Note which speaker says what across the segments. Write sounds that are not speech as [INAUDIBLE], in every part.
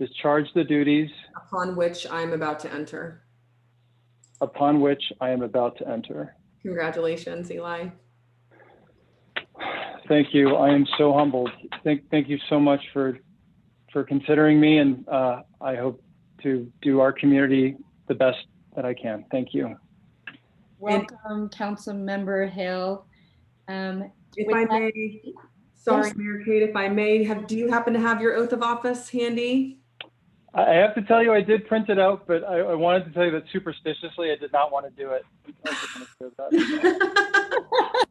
Speaker 1: discharge the duties
Speaker 2: upon which I am about to enter.
Speaker 1: upon which I am about to enter.
Speaker 2: Congratulations, Eli.
Speaker 1: Thank you. I am so humbled. Thank, thank you so much for, for considering me, and uh, I hope to do our community the best that I can. Thank you.
Speaker 3: Welcome, Councilmember Hill. Um,
Speaker 2: If
Speaker 3: With
Speaker 2: I
Speaker 3: that-
Speaker 2: may, sorry,
Speaker 3: Yes.
Speaker 2: Mayor Kate, if I may, have, do you happen to have your oath of office handy?
Speaker 3: [LAUGHS]
Speaker 1: I I have to tell you, I did print it out, but I, I wanted to tell you that superstitiously, I did not want to do it. I was just gonna say that.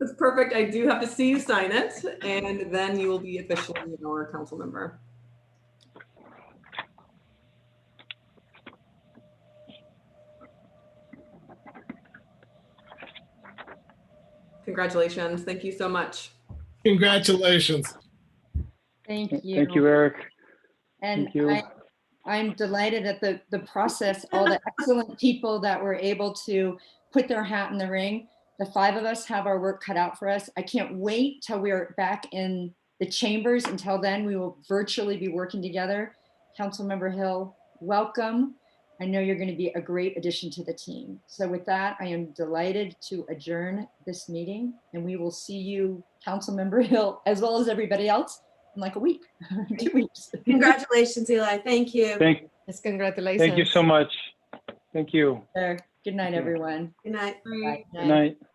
Speaker 2: That's perfect. I do have to see you sign it, and then you will be officially our council member. Congratulations. Thank you so much.
Speaker 4: Congratulations.
Speaker 3: Thank you.
Speaker 1: Thank you, Eric.
Speaker 3: And
Speaker 1: Thank you.
Speaker 3: I, I'm delighted at the, the process, all the excellent people that were able to put their hat in the ring. The five of us have our work cut out for us. I can't wait till we're back in the chambers. Until then, we will virtually be working together. Councilmember Hill, welcome. I know you're going to be a great addition to the team. So with that, I am delighted to adjourn this meeting and we will see you, Councilmember Hill, as well as everybody else in like a week, [LAUGHS] two weeks.
Speaker 5: Congratulations, Eli. Thank you.
Speaker 1: Thank,
Speaker 6: Yes, congratulations.
Speaker 1: thank you so much. Thank you.
Speaker 3: There. Good night,
Speaker 1: Thank you.
Speaker 3: everyone.
Speaker 5: Good night.
Speaker 3: Bye.
Speaker 1: Good night.